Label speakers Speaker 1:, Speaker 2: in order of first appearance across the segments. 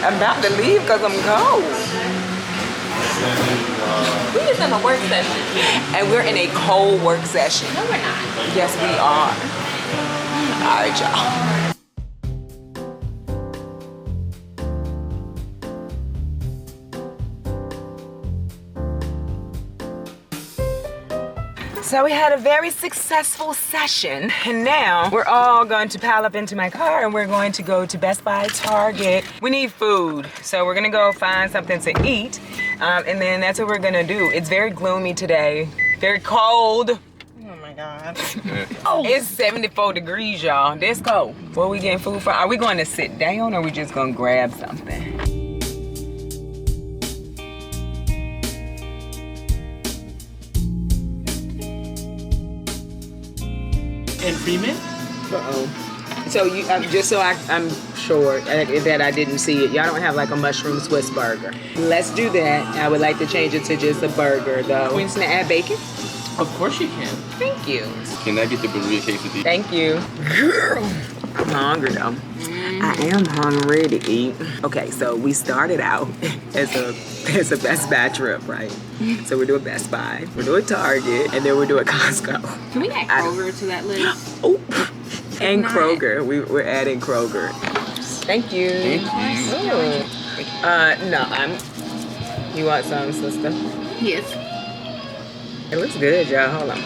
Speaker 1: I'm about to leave because I'm cold.
Speaker 2: We just in a work session.
Speaker 1: And we're in a cold work session.
Speaker 2: No, we're not.
Speaker 1: Yes, we are. All right, y'all. So we had a very successful session, and now we're all going to pile up into my car and we're going to go to Best Buy, Target. We need food, so we're gonna go find something to eat, um, and then that's what we're gonna do. It's very gloomy today, very cold.
Speaker 3: Oh my god. Oh.
Speaker 1: It's 74 degrees, y'all. That's cold. Where we getting food from? Are we going to sit down or we just going to grab something?
Speaker 4: And Freeman?
Speaker 1: Uh-oh. So you, um, just so I, I'm sure uh, that I didn't see it, y'all don't have like a mushroom Swiss burger. Let's do that. I would like to change it to just a burger, though. We just gonna add bacon.
Speaker 4: Of course you can.
Speaker 1: Thank you.
Speaker 5: Can I get the burrito quesadilla?
Speaker 1: Thank you. Girl. I'm hungry though. I am hungry to eat. Okay, so we started out as a as a Best Buy trip, right? So we're doing Best Buy, we're doing Target, and then we're doing Costco.
Speaker 2: Can we add Kroger to that list?
Speaker 1: Oh, and
Speaker 2: Not-
Speaker 1: Kroger. We, we're adding Kroger. Thank you. Uh, no, I'm. You want some, sister?
Speaker 2: Yes.
Speaker 1: It looks good, y'all. Hold on.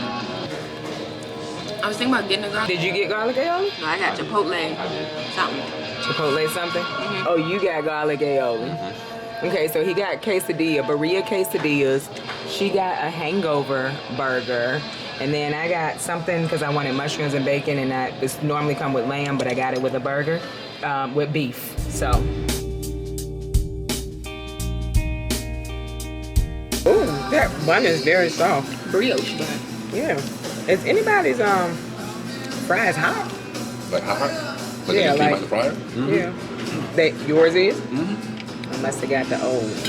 Speaker 2: I was thinking about getting a garlic.
Speaker 1: Did you get garlic aioli?
Speaker 2: No, I got Chipotle. Something.
Speaker 1: Chipotle something? Oh, you got garlic aioli. Okay, so he got quesadilla, burrito quesadillas. She got a hangover burger. And then I got something because I wanted mushrooms and bacon, and I it's normally come with lamb, but I got it with a burger, um, with beef. So. Ooh, that bun is very soft.
Speaker 2: Brioche bun.
Speaker 1: Yeah. Is anybody's um fries hot?
Speaker 5: Like hot hot? Like
Speaker 1: Yeah,
Speaker 5: yeah,
Speaker 1: like-
Speaker 5: like, the fryer?
Speaker 1: Yeah. That yours is? Mm-hmm. I must have got the old ones.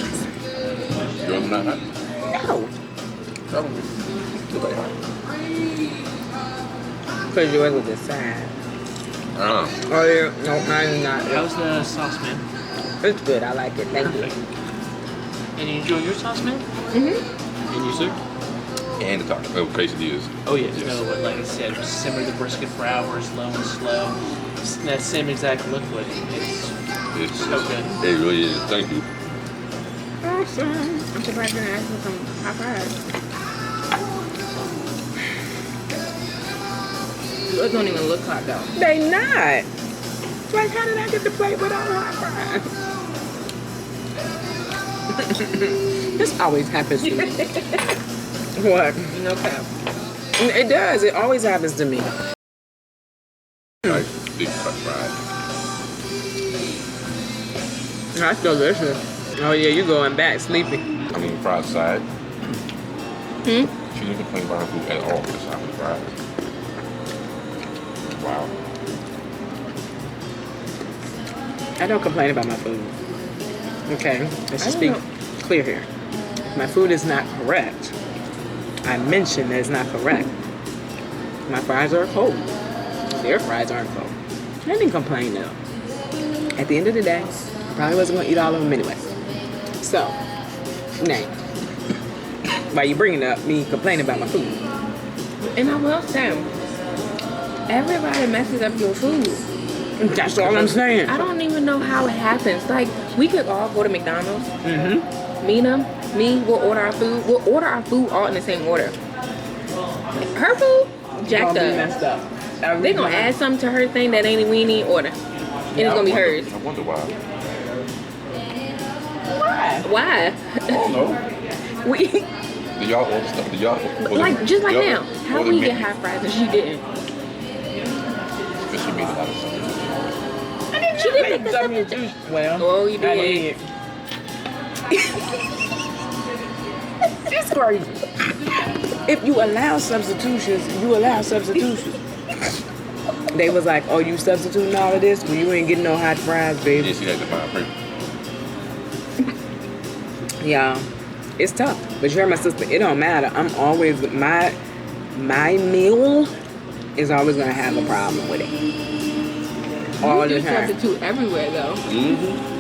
Speaker 5: You're not hot?
Speaker 1: No.
Speaker 5: Probably. Look like hot.
Speaker 1: Because yours was the side.
Speaker 5: Uh,
Speaker 1: Oh, yeah. No, mine's not.
Speaker 4: How's the sauce, man?
Speaker 1: It's good. I like it. Thank you.
Speaker 4: And you enjoy your sauce, man? Mm-hmm. And you, sir?
Speaker 5: and the taco. Oh, quesadillas.
Speaker 4: Oh, yeah.
Speaker 5: Yes.
Speaker 4: No, but like I said, simmer the brisket for hours, low and slow. It's that same exact liquid. It's,
Speaker 5: It's, Hmm.
Speaker 4: Okay.
Speaker 5: It really is. Thank you.
Speaker 1: Awesome.
Speaker 2: I'm surprised you didn't ask for some hot fries. Those don't even look hot though.
Speaker 1: They not. Like, how did I get the plate without hot fries? this always happens to me. what?
Speaker 2: No cap.
Speaker 1: It does. It always happens to me.
Speaker 5: Like big cut fried.
Speaker 1: That's delicious. Oh, yeah, you going back sleepy.
Speaker 5: I mean, fried side. Hmm?
Speaker 2: Hmm?
Speaker 5: She didn't complain about her food at all because I was fried. Wow.
Speaker 1: I don't complain about my food. Okay, let's just be clear here. My food is not correct. I mentioned that it's not correct. My fries are cold. Their fries aren't cold. I didn't complain though. At the end of the day, I probably wasn't gonna eat all of them anyway. So, Nate, why you bringing up me complaining about my food?
Speaker 2: And I will say, everybody messes up your food.
Speaker 1: That's all I'm saying.
Speaker 2: I don't even know how it happens. Like we could all go to McDonald's. Mm-hmm. Mina, me, we'll order our food. We'll order our food all in the same order. Her food
Speaker 1: Gonna
Speaker 2: jacked
Speaker 1: be
Speaker 2: up.
Speaker 1: messed up.
Speaker 2: They gonna add something to her thing that ain't we need order, and it's gonna be hers.
Speaker 5: I wonder why.
Speaker 1: Why?
Speaker 2: Why?
Speaker 5: I don't know.
Speaker 2: We
Speaker 5: Do y'all order stuff? Do y'all order,
Speaker 2: like just like
Speaker 5: y'all
Speaker 2: now. How
Speaker 5: order
Speaker 2: we get
Speaker 5: meat?
Speaker 2: high fries and she didn't?
Speaker 5: Because she made a lot of stuff.
Speaker 2: She didn't pick
Speaker 1: I mean,
Speaker 2: the
Speaker 1: juice- Well,
Speaker 2: Oh, you
Speaker 1: I did.
Speaker 2: did.
Speaker 1: It's crazy. If you allow substitutions, you allow substitutions. they was like, "Oh, you substituting all of this? Well, you ain't getting no hot fries,
Speaker 5: Yeah,
Speaker 1: baby."
Speaker 5: she had to buy a paper.
Speaker 1: Yeah, it's tough. But you're my sister. It don't matter. I'm always my my meal is always gonna have a problem with it. All
Speaker 2: You
Speaker 1: the
Speaker 2: do
Speaker 1: time.
Speaker 2: substitute everywhere though.
Speaker 5: Mm-hmm.